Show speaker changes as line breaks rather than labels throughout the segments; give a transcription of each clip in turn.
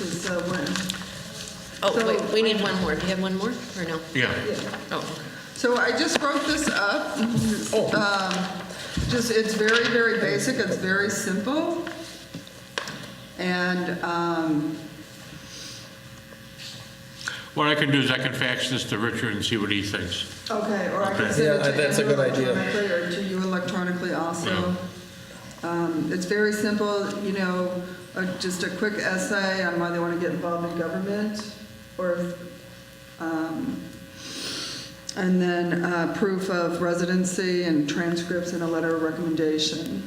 is uh, one.
Oh,
So-
wait, we need one more. Do you have one more, or no?
Yeah.
Yeah.
Oh,
So I just wrote this up. Um, Just, it's very, very basic, it's very simple. And, um,
What I can do is I can fax this to Richard and see what he thinks.
okay, or I
Okay.
can send
Yeah,
it
that's
to
a
you
good idea.
electronically or to you electronically also. Um, It's very simple, you know, uh, just a quick essay on why they want to get involved in government or, um, and then uh, proof of residency and transcripts and a letter of recommendation.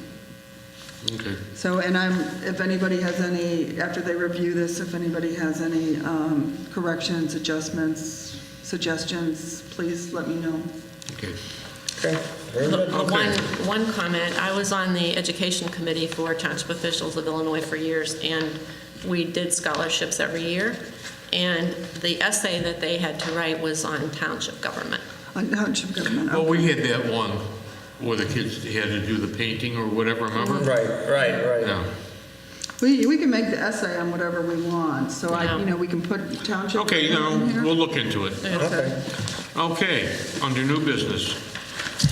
Okay.
So, and I'm, if anybody has any, after they review this, if anybody has any um, corrections, adjustments, suggestions, please let me know.
Okay.
Okay, very good.
The
Okay.
One, one comment, I was on the education committee for Township Officials of Illinois for years, and we did scholarships every year, and the essay that they had to write was on township government.
On township government,
Well,
okay.
we had that one where the kids had to do the painting or whatever, remember?
Right, right, right.
Yeah.
we, we can make the essay on whatever we want, so I, you know, we can put township.
Okay, you know,
government in here.
we'll look into it.
Okay.
Okay, under new business,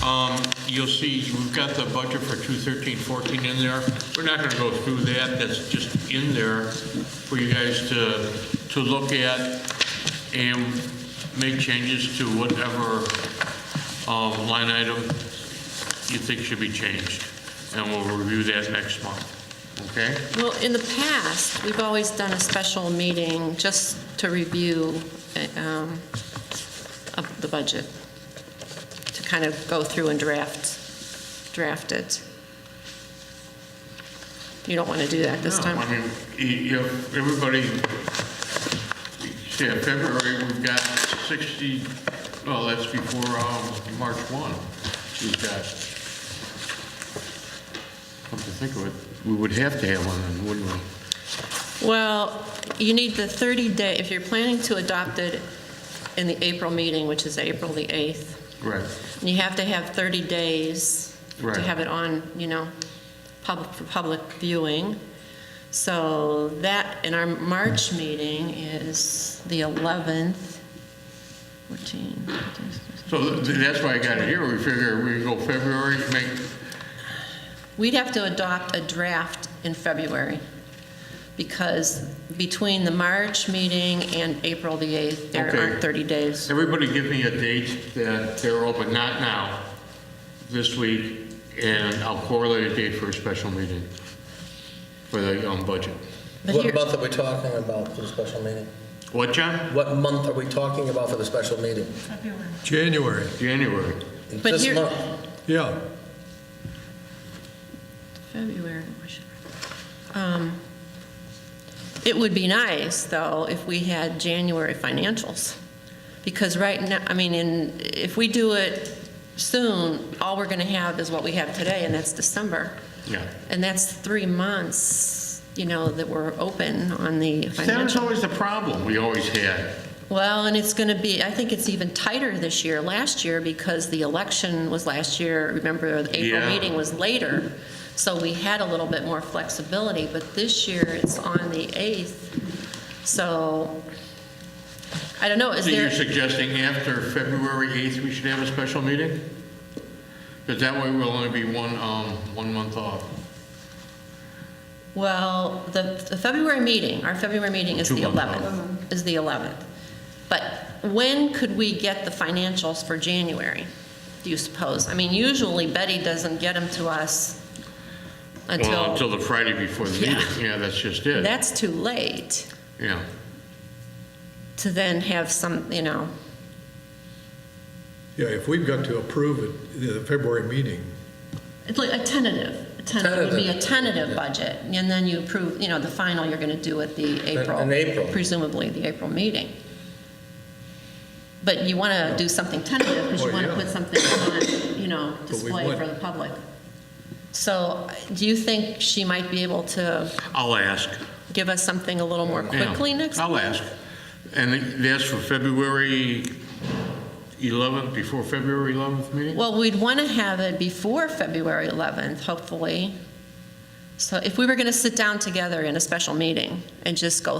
um, you'll see, we've got the budget for 213-14 in there. We're not going to go through that, that's just in there for you guys to, to look at and make changes to whatever um, line item you think should be changed. And we'll review that next month, okay?
Well, in the past, we've always done a special meeting just to review uh, um, of the budget, to kind of go through and draft, draft it. You don't want to do that this
No,
time?
I mean, y- you, everybody, yeah, February, we've got 60, well, that's before um, March 1. We've got, come to think of it, we would have to have one, then, wouldn't we?
Well, you need the 30-day, if you're planning to adopt it in the April meeting, which is April the 8th,
Right.
you have to have 30 days
Right.
to have it on, you know, public, for public viewing. So that, and our March meeting is the 11th, 14.
So th- that's why I got it here, we figure we go February, make,
We'd have to adopt a draft in February, because between the March meeting and April the 8th, there
Okay.
aren't 30 days.
everybody give me a date that they're open, not now, this week, and I'll correlate a date for a special meeting for the um, budget.
But here-
What month are we talking about for the special meeting?
What, John?
What month are we talking about for the special meeting?
January,
January.
But
This
here-
month?
yeah.
February. we should- um, It would be nice, though, if we had January financials, because right now, I mean, in, if we do it soon, all we're going to have is what we have today, and that's December.
Yeah.
And that's three months, you know, that we're open on the
That was
financial.
always the problem we always had.
Well, and it's going to be, I think it's even tighter this year, last year, because the election was last year, remember, the April
Yeah.
meeting was later, so we had a little bit more flexibility, but this year, it's on the 8th, so, I don't know, is
So
there,
you're suggesting after February 8th, we should have a special meeting? Because that way we'll only be one, um, one month off.
well, the the February meeting, our February meeting is
Two
the
months out.
11th, is the 11th, but when could we get the financials for January, do you suppose? I mean, usually Betty doesn't get them to us until...
Well, until the Friday before the
Yeah.
meeting, yeah, that's just it,
That's too late
yeah.
to then have some, you know,
Yeah, if we've got to approve it, the February meeting,
it's like a tentative. A tentative would be a tentative budget, and then you approve, you know, the final you're going to do at the April.
in April.
Presumably, the April meeting. But you want to do something tentative because you
Oh,
want to
yeah.
put something on, you know, display
would.
for the public. So do you think she might be able to
I'll ask.
give us something a little more
yeah.
quickly next?
I'll ask. And that's for February 11th, before February 11th meeting?
Well, we'd want to have it before February 11th, hopefully. So if we were going to sit down together in a special meeting and just go